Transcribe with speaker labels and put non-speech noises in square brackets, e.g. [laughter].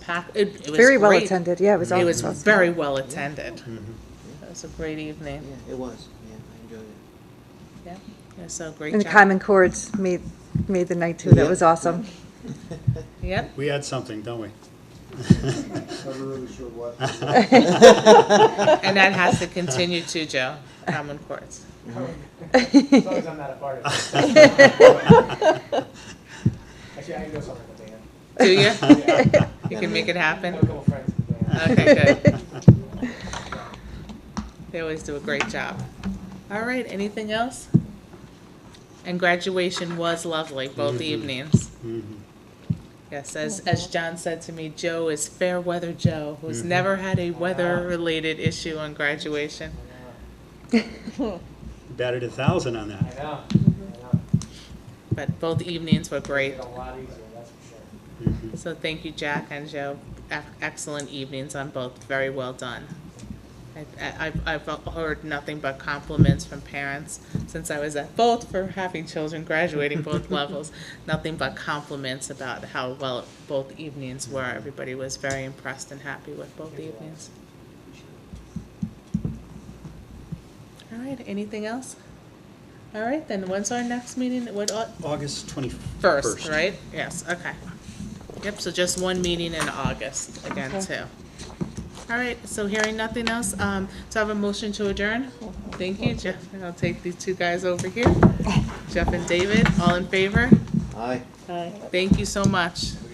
Speaker 1: packed, it it was
Speaker 2: Very well
Speaker 1: great.
Speaker 2: attended, yeah, it was
Speaker 1: It
Speaker 2: all-
Speaker 1: was
Speaker 2: awesome.
Speaker 1: very well attended.
Speaker 3: Mhm.
Speaker 1: It was a great evening.
Speaker 3: Yeah, it was, yeah, I enjoyed it.
Speaker 1: Yeah, yeah, so great
Speaker 2: And the
Speaker 1: job.
Speaker 2: Common Chords made, made the night too, that
Speaker 3: Yeah.
Speaker 2: was awesome.
Speaker 1: Yep,
Speaker 4: We had something, don't we?
Speaker 5: Never really sure
Speaker 3: [laughs]
Speaker 5: what.
Speaker 1: [laughs] and that has to continue too, Joe, Common Courts.
Speaker 6: As long as I'm not a part of it. Actually, I can go somewhere with Dan.
Speaker 1: Do
Speaker 4: [laughs]
Speaker 1: you?
Speaker 2: [laughs]
Speaker 6: Yeah.
Speaker 1: You can make it
Speaker 6: I have a
Speaker 1: happen?
Speaker 6: couple friends with Dan.
Speaker 1: Okay, good. They always do a great job. All right, anything else? And graduation was lovely, both evenings.
Speaker 4: Mhm.
Speaker 1: Yes, as, as John said to me, Joe is fair weather Joe, who's never had a weather related issue on graduation.
Speaker 4: Batted a thousand on
Speaker 6: I know,
Speaker 4: that.
Speaker 6: I know, I know.
Speaker 1: But both evenings were
Speaker 6: Made
Speaker 1: great.
Speaker 6: it a lot easier, that's for sure.
Speaker 4: Mhm.
Speaker 1: So thank you, Jack and Joe. Ec- Excellent evenings on both. Very well done. I, I, I've- I've heard nothing but compliments from parents since I was at both for having children graduating both levels. Nothing but compliments about how well both evenings were. Everybody was very impressed and happy with both evenings. All right, anything else? All right, then when's our next meeting? What, au-
Speaker 4: August
Speaker 1: first,
Speaker 4: 21st.
Speaker 1: right? Yes, okay. Yep, so just one meeting in August again, too. All right, so hearing nothing else, um, so I have a motion to adjourn. Thank you, Jeff, and I'll take these two guys over here. Jeff and David, all in favor?
Speaker 3: Aye.
Speaker 1: Thank you so much.